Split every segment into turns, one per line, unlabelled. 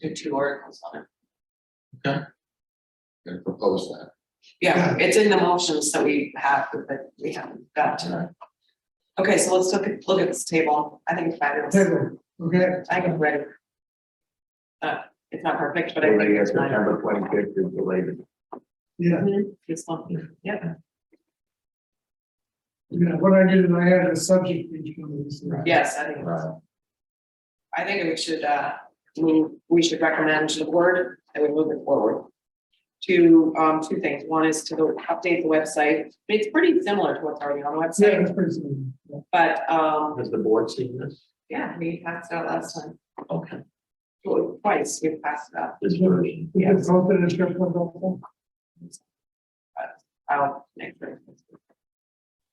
do two articles on it.
and propose that.
Yeah, it's in the motions that we have, but we haven't got to it. Okay, so let's look at, look at this table. I think it's fabulous.
Table, okay,
I can read it. Uh, it's not perfect, but I think
Maybe
it's not.
September twenty-fifth is the latest.
yeah,
Mhm, It's not, yeah,
yeah, what I did is I added a subject each one of these.
yes, I think, it's- I think we should, uh, I mean, we should recommend to the board that we move it forward. To, um, two things. One is to the, update the website. I mean, It's pretty similar to what's already on the
Yeah,
website,
that's pretty soon. Yeah.
but, um,
Has the board seen this?
yeah, we passed it out last time.
Okay.
Well, Twice, we passed it out.
This version.
We can solve it in a short one, don't
I'll make sure.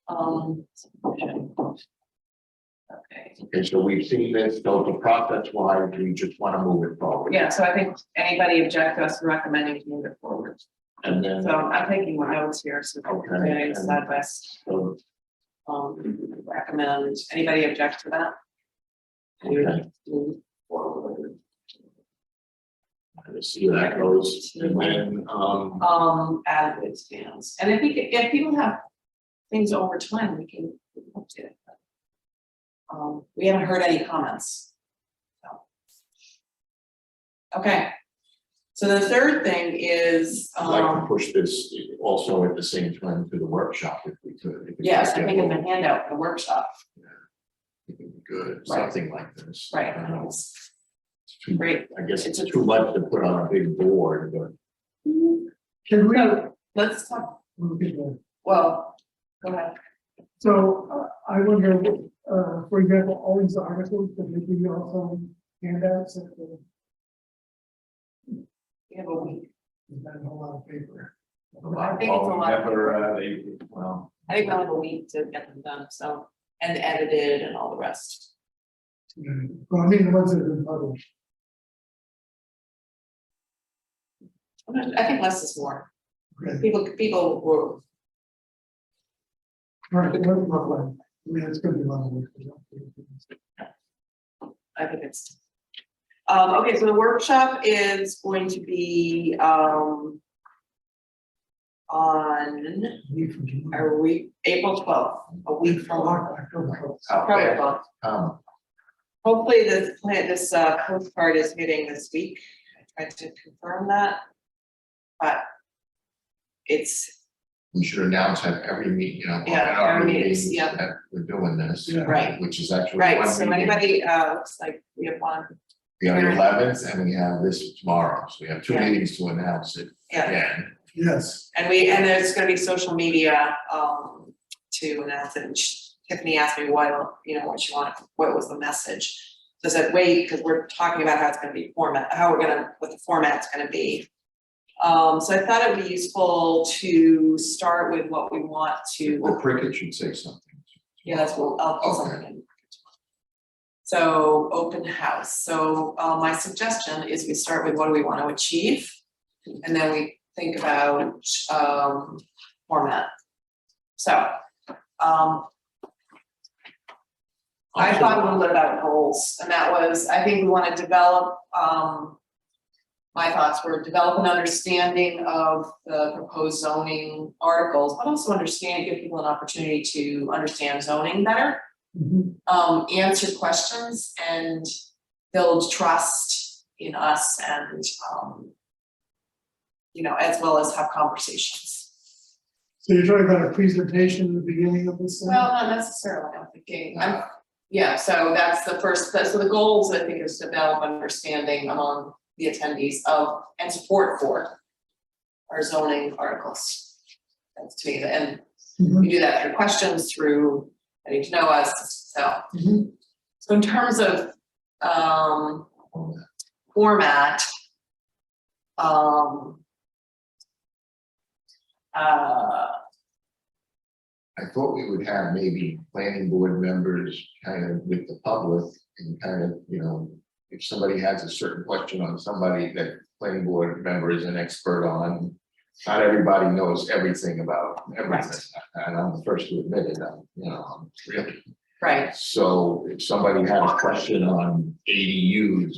Um. Okay,
Okay, so we've seen this, so the process wise, we just want to move it forward.
yeah, so I think anybody object to us recommending to move it forward,
And then,
so I'm taking my notes here, so.
Okay.
it's not best,
so,
um, recommend, anybody object to that?
okay,
Move forward.
let's see how that goes. And then, um,
Um, as it stands, and I think if people have things over time, we can update it. Um, we haven't heard any comments. so. Okay. So the third thing is,
I'd like to
um,
push this also at the same time to the workshop if we could. if we
yes, I
could
think
get
in the handout, the workshop,
one, Good, something like this.
right,
I don't know,
it's
it's too-
great.
I guess
It's
it's
a-
too much to put on a big board, but
Can we?
So let's talk,
Okay, well,
well, go ahead,
So uh, I wonder, uh, for example, all these articles, that they give you also handouts, and
we have a week.
that a lot of paper.
a lot.
I think it's a
well,
lot.
Never, uh, they, well,
I think we'll have a week to get them done, so, and edited and all the rest.
Yeah. Well, I mean, the ones that have been published,
I'm not- I think less is more,
okay,
people, people were
all right, what about one? I mean, it's gonna be a lot of work.
I think it's. Um, okay, so the workshop is going to be, um. On,
Week from July.
are we, April twelfth, a week from our,
October first.
out
probably
there,
about-
um,
Hopefully this plan, this uh Coast Guard is meeting this week. I tried to confirm that. But. It's,
we should announce at every meet, you know,
Yeah,
at our
every meetings,
meetings
yeah.
that we're doing this.
Yeah.
Right.
Which is actually.
right,
one
so
meeting.
anybody, uh, looks like we have one,
We have the eleventh and we have this tomorrow, so we have two
Yeah.
meetings to announce it
yeah.
again.
Yes,
And we, and there's gonna be social media, um, to announce it, and she- Tiffany asked me why, you know, what she wanted, what was the message? So I said, wait, because we're talking about how it's gonna be format, how we're gonna, what the format's gonna be. Um, so I thought it would be useful to start with what we want
Well,
to,
Cricket should say something.
yeah, that's what, I'll put something in. So, open house, so, uh, my suggestion is we start with what do we wanna achieve? And then we think about, um, format. So, um, I thought a little bit about goals, and that was, I think we wanna develop, um. My thoughts were develop an understanding of the proposed zoning articles, but also understand, give people an opportunity to understand zoning better.
Mhm.
Um, answer questions and build trust in us and, um. You know, as well as have conversations.
so you're talking about a presentation at the beginning of this? thing?
Well, not necessarily, I'm thinking, I'm Yeah, so that's the first, that- so the goals, I think, is to develop understanding among the attendees of and support for our zoning articles. That's to me, and
Mhm,
we do that through questions, through getting to know us, so.
mhm.
So in terms of um format, um uh,
I thought we would have maybe planning board members kind of with the public and kind of, you know, if somebody has a certain question on somebody that planning board member is an expert on, not everybody knows everything about everything. And I'm the first to admit it, I'm, you know, I'm really.
right,
So if somebody had a question on ADUs